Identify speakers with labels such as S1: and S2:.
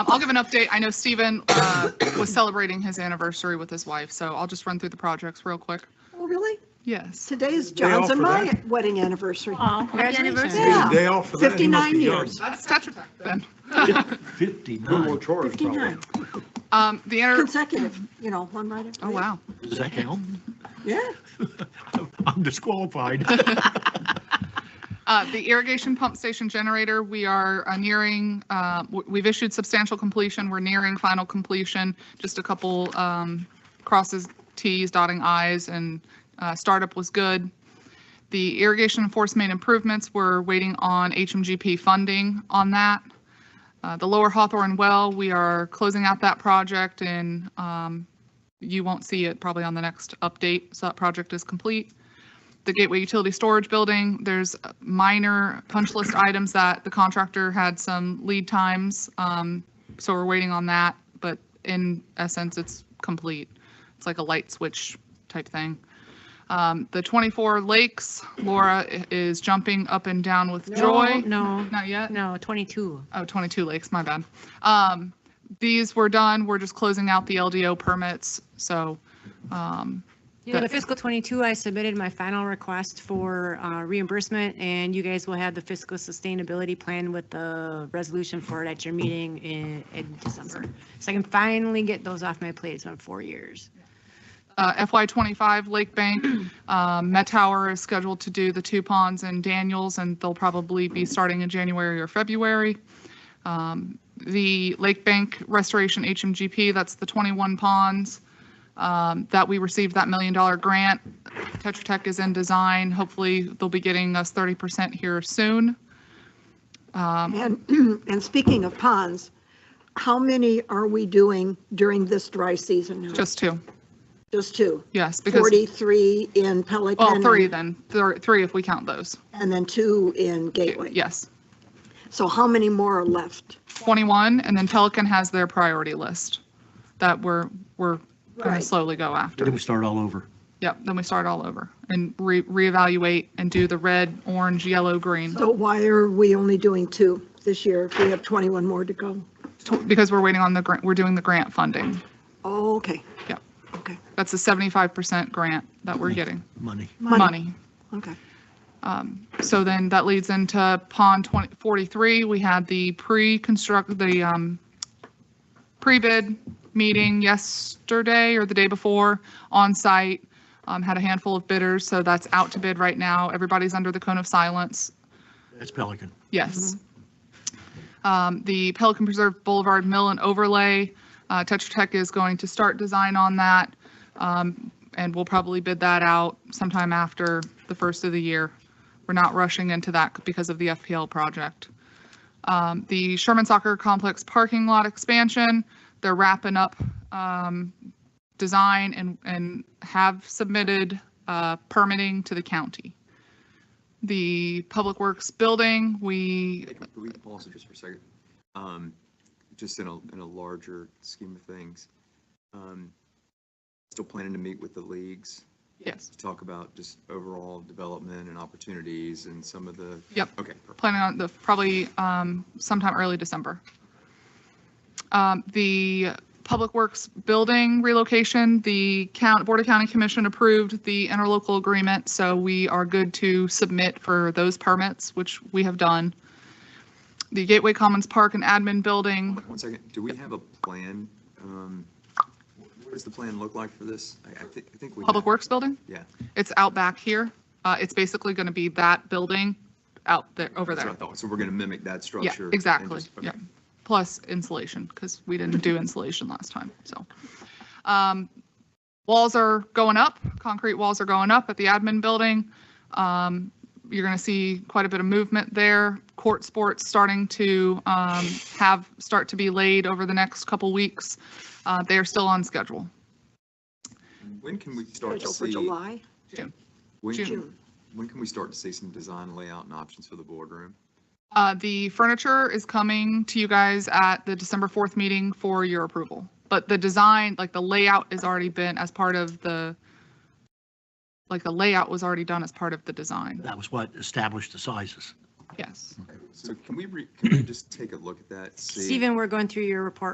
S1: Um, I'll give an update. I know Stephen uh, was celebrating his anniversary with his wife, so I'll just run through the projects real quick.
S2: Oh, really?
S1: Yes.
S2: Today's
S3: Day off
S2: John's and
S3: for
S2: my
S3: that.
S2: wedding anniversary.
S4: Oh,
S1: Yeah.
S4: congratulations.
S3: Take a Day off for that. He must
S2: 59
S3: be young.
S2: years.
S1: That's Tetra Tech then.
S3: Google
S5: 59.
S3: Taurus, probably.
S2: 59
S1: Um, The, inter-
S2: consecutive, you know, one right after.
S1: oh
S2: the
S1: wow.
S5: Does that count?
S2: other. Yeah.
S5: I'm disqualified.
S1: Uh, The irrigation pump station generator, we are uh, nearing, uh, w- we've issued substantial completion. We're nearing final completion. Just a couple um, crosses, Ts, dotting Is, and uh, startup was good. The irrigation enforcement improvements, we're waiting on HMGP funding on that. Uh, The lower Hawthorne well, we are closing out that project and um, you won't see it probably on the next update. So that project is complete the Gateway Utility Storage Building, there's minor punch list items that the contractor had some lead times. um, So we're waiting on that, but in essence, it's complete. It's like a light switch type thing. Um, The 24 Lakes, Laura i- is jumping up and down with joy.
S4: No,
S1: Not yet?
S4: no, 22.
S1: Oh, 22 Lakes, my bad. Um, These were done, we're just closing out the LDO permits, so um,
S4: You know, the fiscal 22, I submitted my final request for uh, reimbursement, and you guys will have the fiscal sustainability plan with the resolution for it at your meeting in, in December. So I can finally get those off my plate. It's been four years.
S1: uh, FY25 Lake Bank. um, Met Tower is scheduled to do the two ponds in Daniels, and they'll probably be starting in January or February. Um, The Lake Bank Restoration HMGP, that's the 21 ponds um, that we received that million dollar grant. Tetra Tech is in design. Hopefully, they'll be getting us 30% here soon. Um,
S2: And, and speaking of ponds, how many are we doing during this dry season now?
S1: Just two,
S2: Just two.
S1: yes, because,
S2: 43 in Pelican.
S1: well, three
S2: and-
S1: then, Thir- three if we count those.
S2: And then two in Gateway.
S1: Yes,
S2: So how many more are left?
S1: 21, and then Pelican has their priority list that we're, we're going to
S2: Right.
S1: slowly go after.
S5: Then we start all over.
S1: Yep, then we start all over and re reevaluate and do the red, orange, yellow, green,
S2: So why are we only doing two this year if we have 21 more to go?
S1: to- because we're waiting on the grant, we're doing the grant funding.
S2: Oh, okay.
S1: Yeah.
S2: Okay.
S1: That's a 75% grant that we're getting,
S5: Money.
S1: money.
S2: Okay.
S1: Um, So then that leads into pond 20 43. We had the pre-construct, the um, pre-bid meeting yesterday or the day before on site. Um, Had a handful of bidders, so that's out to bid right now. Everybody's under the cone of silence.
S5: That's Pelican.
S1: Yes. Um, The Pelican Preserve Boulevard Mill and Overlay, uh, Tetra Tech is going to start design on that. um, And we'll probably bid that out sometime after the first of the year. We're not rushing into that because of the FPL project. Um, The Sherman Soccer Complex parking lot expansion, they're wrapping up um, design and, and have submitted uh, permitting to the county. The Public Works Building, we
S6: Can we pause it just for a second? Um, Just in a, in a larger scheme of things. um, Still planning to meet with the leagues
S1: Yes,
S6: to talk about just overall development and opportunities and some of the.
S1: Yep.
S6: Okay, perfect.
S1: planning on the, probably um, sometime early December. Um, The Public Works Building relocation, the count, Board of County Commission approved the interlocal agreement, so we are good to submit for those permits, which we have done. The Gateway Commons Park and Admin Building,
S6: One second, do we have a plan? Um, What does the plan look like for this? I, I think, I think we.
S1: Public
S6: have-
S1: Works Building,
S6: Yeah.
S1: it's out back here. Uh, It's basically going to be that building out there, over
S6: That's
S1: there.
S6: what I thought. So we're going to mimic that
S1: Yeah,
S6: structure. and
S1: exactly,
S6: just- okay.
S1: yeah. Plus insulation, because we didn't do insulation last time, so. Um, Walls are going up, concrete walls are going up at the admin building. Um, You're going to see quite a bit of movement there. Court sports starting to um, have, start to be laid over the next couple weeks. Uh, They are still on schedule.
S6: When can we start to
S2: Scheduled for
S6: see?
S2: July,
S6: when can-
S2: June.
S6: When can we start to see some design layout and options for the boardroom?
S1: Uh, The furniture is coming to you guys at the December 4th meeting for your approval. But the design, like the layout has already been as part of the, like the layout was already done as part of the design.
S5: That was what established the sizes.
S7: yes.
S1: So can we, re- can we just take a look at that? see-
S6: Stephen, we're going through your report